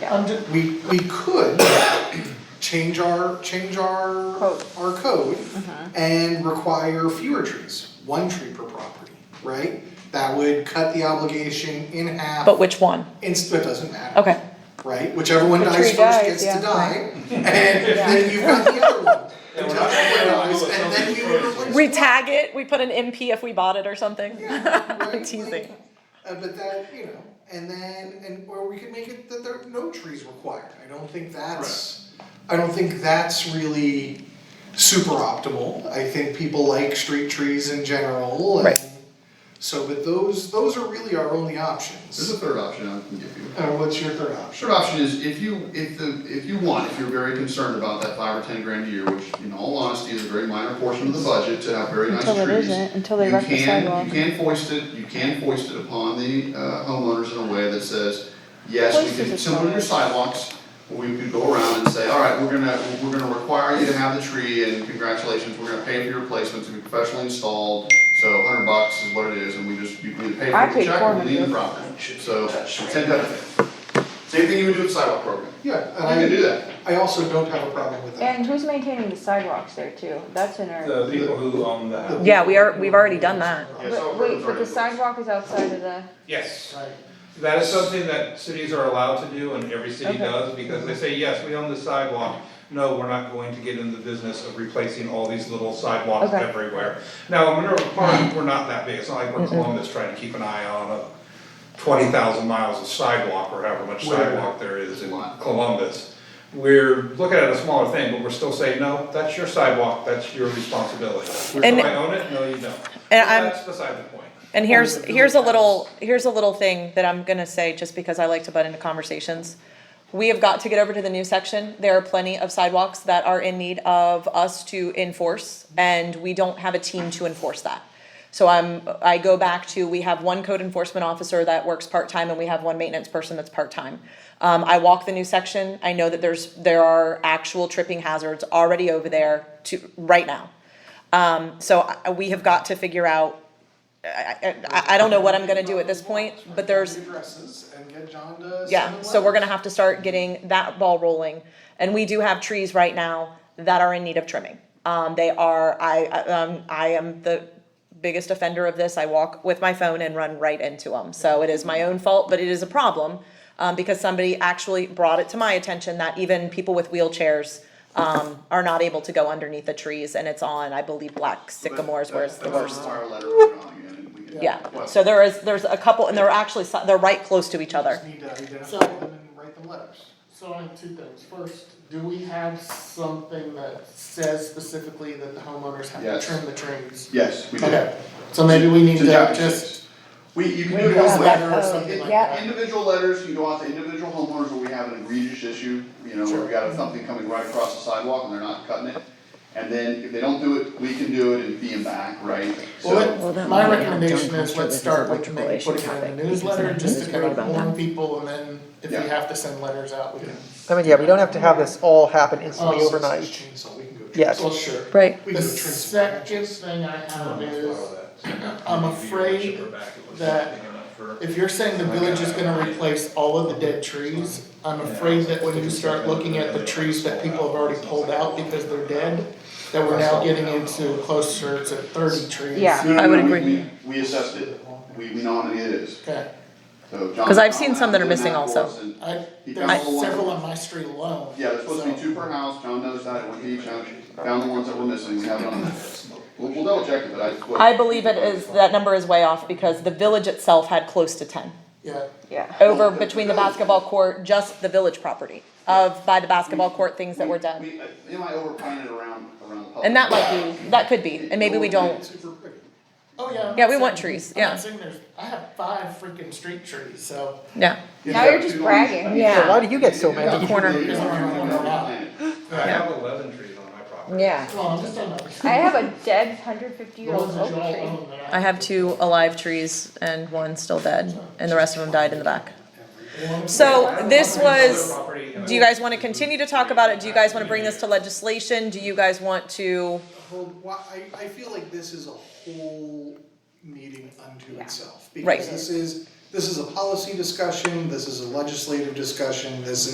Yeah. under, we, we could change our, change our, Code. Mm-hmm. our code and require fewer trees, one tree per property, right? That would cut the obligation in half. But which one? Inst- it doesn't matter. Okay. Right, whichever one The dies tree first dies, gets yeah. to die, and then you've got the other one. Yeah, we're Until not that gonna one dies, do it and then you until it's replace We tag it, we put an MP if we bought it or something. Yeah, I'm right, like, teasing. Uh, but that, you know, and then, and, or we could make it that there are no trees required, I don't think that's, I don't think that's really super optimal, I think people like street trees in general, and Right. so, but those, those are really our only options. There's a third option I can give you. Uh, what's your third option? Third option is if you, if the, if you want, if you're very concerned about that five or ten grand a year, which in all honesty is a very minor portion of the budget to have very nice trees. Until it isn't, until they you wreck the can- sidewalk. You can foist it, you can foist it upon the uh, homeowners in a way that says, yes, Foist we is a can, similar to your sidewalks, we could go around and say, all right, we're gonna, we're gonna require you to have the tree and congratulations, we're gonna pay for your replacement to be professionally installed. So a hundred bucks is what it is and we just, you can either pay I for the paid check or leave the 400. property. So, ten thousand. Same thing you would do with sidewalk program. Yeah, You can and do that. I, I also don't have a problem with that. And who's maintaining the sidewalks there too? That's in our, The people who own the house. Yeah, we are, we've already done that. Yes, all but wait, but the programs are- sidewalk is outside of the, Yes, Right. that is something that cities are allowed to do and every city Okay. does, because they say, yes, we own the sidewalk. No, we're not going to get in the business of replacing all these little sidewalks Okay. everywhere. Now, in Minerva Park, we're not that big, it's not like we're Columbus trying to keep an eye on a twenty thousand miles of sidewalk or however much Where? sidewalk there is in Columbus. We're looking at a smaller thing, but we're still saying, no, that's your sidewalk, that's your responsibility. Do And- I own it? No, you don't. And I'm- That's beside the point. And here's, here's a little, here's a little thing that I'm gonna say, just because I like to butt into conversations. We have got to get over to the new section, there are plenty of sidewalks that are in need of us to enforce, and we don't have a team to enforce that. So I'm, I go back to, we have one code enforcement officer that works part-time, and we have one maintenance person that's part-time. Um, I walk the new section, I know that there's, there are actual tripping hazards already over there to, right now. Um, so I, we have got to figure out I, I, I don't know what I'm gonna do at this point, but there's, Addresses and get John to send yeah, them so we're letters. gonna have to start getting that ball rolling. And we do have trees right now that are in need of trimming. Um, they are, I, I, um, I am the biggest offender of this, I walk with my phone and run right into them. So it is my own fault, but it is a problem, um, because somebody actually brought it to my attention that even people with wheelchairs um, are not able to go underneath the trees, and it's on, I believe, black sycamores where it's the That's- worst. That's our letter we're on again, and we can- Yeah, Well, so there is, there's a couple, and they're actually, si- they're right close to each other. Just need to So- identify them and write them letters. So I have two things. First, do we have something that says specifically that the homeowners have to Yes. trim the trees? Yes, we do. Okay, so maybe we need To to chapter just six. We, you can do move it this all the way. letter or something like yeah. that. Individual letters, you can go out to individual homeowners where we have an egregious issue, you know, where we got something coming right across the sidewalk and they're not cutting it. And then if they don't do it, we can do it and fee them back, right? So, that Well, let- my might not recommendation done is culture let's is an start with maybe electrical putting it issue in the topic, newsletter, because just I'm to kind of worried about warn that. people, and then if we Yeah. have to send letters out, we can. I mean, yeah, we don't have to have this all happen instantly Oh, so it's Just overnight. chainsaw, we can go. Yes. Well, sure. Right. We The can go transparent. second thing I Um, have is, I'm afraid that if you're saying the village is gonna replace all of the dead trees, I'm afraid that when you start looking at the trees that people have already pulled out because they're dead, that we're now getting into closer to thirty trees. Yeah. no, I no, would no, we, agree. we, we assessed it. We, we know how many it is. Okay, So John. 'Cause I've seen John some that are did missing for also. us and- I, He there's found the one- several on my street alone. Yeah, there's supposed to be so- two per house, John knows that, one each, I found the ones that were missing, we have it on the We'll, we'll double check it, but I. what- I believe it is, that number is way off because the village itself had close to ten. Yeah, yeah. Over between the basketball court, just the village property of, by the basketball court, things that were done. We, uh, we might over plan it around, around the public. And that might be, that could be, and maybe we don't, Super pretty. oh yeah. I'm Yeah, not we want saying- trees, I'm not yeah. saying there's, I have five freaking street trees, so. yeah. You Now have you're just two on- bragging. So why do you get so many? Yeah. Corner. You have two on- I have eleven trees on my property. Yeah. Well, I'm just talking about. I have a dead hundred fifty year The old ones that y'all oak tree. own that I have two alive trees and one still dead, and the rest of them died in the back. So this was, do you guys wanna continue to talk about it? Do you guys wanna bring this to legislation? Do you guys want to? Hold, why, I, I feel like this is a whole meeting unto Yeah. itself. Right. Because this is, this is a policy discussion, this is a legislative discussion, this is.